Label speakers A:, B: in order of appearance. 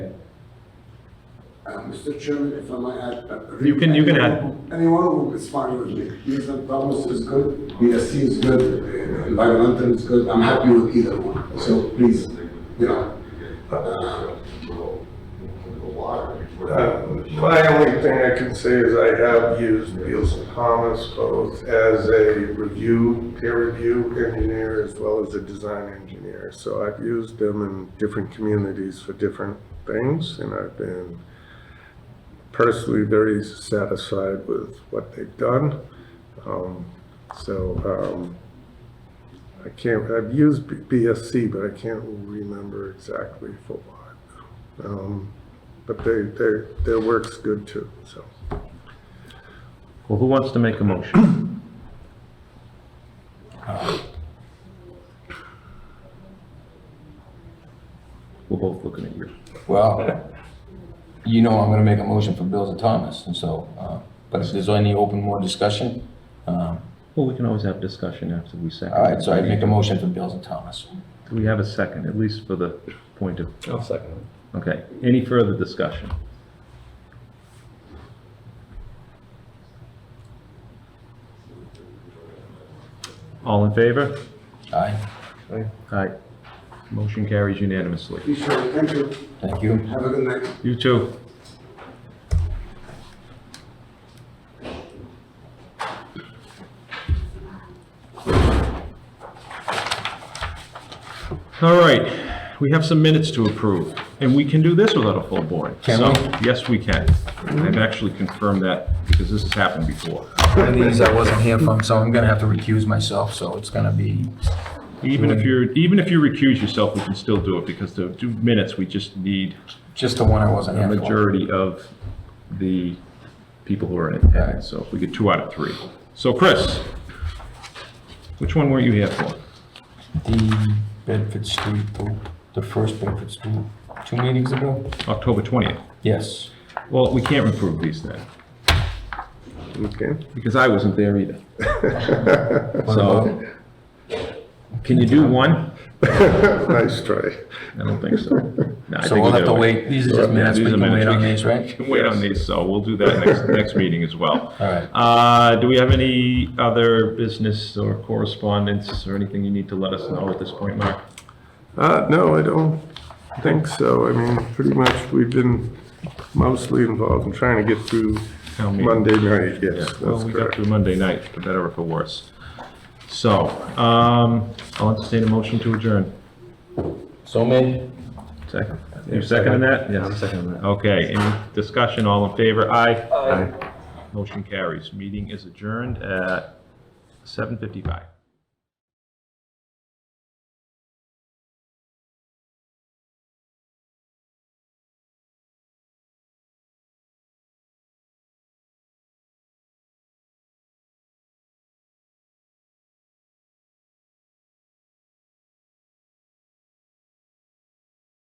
A: Mr. Uh, Chairman, if I might add. uh,
B: You can- you can add.
A: Any one of them is fine with me. Ethan Thomas is good, BSC is good, uh, environmental is good, I'm happy with either one. So please, you know, uh,
C: Uh, My only thing I can say is I have used Beals and Thomas both as a review, peer review engineer as well as a design engineer. So I've used them in different communities for different things and I've been personally very satisfied with what they've done. Um, So um, I can't, I've used B- BSC, but I can't remember exactly for what. Um, but they, their, their work's good too, so.
B: Well, who wants to make a motion? We're both looking at you.
D: Well, you know I'm gonna make a motion for Bills and Thomas, and so, uh, but if there's any open more discussion, um,
B: Well, we can always have discussion after we second.
D: all right, so I'd make a motion for Bills and Thomas.
B: Do we have a second, at least for the point of,
E: I'll second it.
B: okay, any further discussion? All in favor?
D: Aye,
B: Aye. Motion carries unanimously.
A: be sure, thank you,
D: thank you.
A: have a good night.
B: You too. All right, we have some minutes to approve, and we can do this without a full board.
D: Can
B: So,
D: we?
B: Yes, we can. I've actually confirmed that because this has happened before.
D: One of these I wasn't here from, so I'm gonna have to recuse myself, so it's gonna be,
B: Even if you're, even if you recuse yourself, we can still do it because the two minutes, we just need
D: just the one I wasn't
B: a
D: here for.
B: majority of the people who are in attendance, so if we get two out of three. So Chris, which one were you here for?
D: The Bedford Street group, the first Bedford Street, two meetings ago?
B: October 20th?
D: Yes.
B: Well, we can't approve these then,
C: Okay.
B: because I wasn't there either.
D: What about-
B: Can you do one?
C: Nice try.
B: I don't think so. No, I
D: So
B: think
D: we'll
B: gotta
D: have to wait, these
B: Yeah,
D: are just minutes, we
B: these are
D: can wait
B: minutes.
D: on these,
B: We
D: right?
B: can wait on these, so we'll do that next, next meeting as well.
D: All right.
B: Uh, do we have any other business or correspondence or anything you need to let us know at this point, Mark?
C: Uh, no, I don't think so. I mean, pretty much, we've been mostly involved in trying to get through
B: Town meeting.
C: Monday night,
B: Yeah,
C: yes,
B: well,
C: that's
B: we got
C: correct.
B: through Monday night, for better or for worse. So, um, I'll entertain a motion to adjourn.
D: So made?
B: Second. You seconding that?
E: Yeah, I'm seconding that.
B: Okay, any discussion, all in favor? Aye.
E: Aye.
B: Motion carries. Meeting is adjourned at 7:55.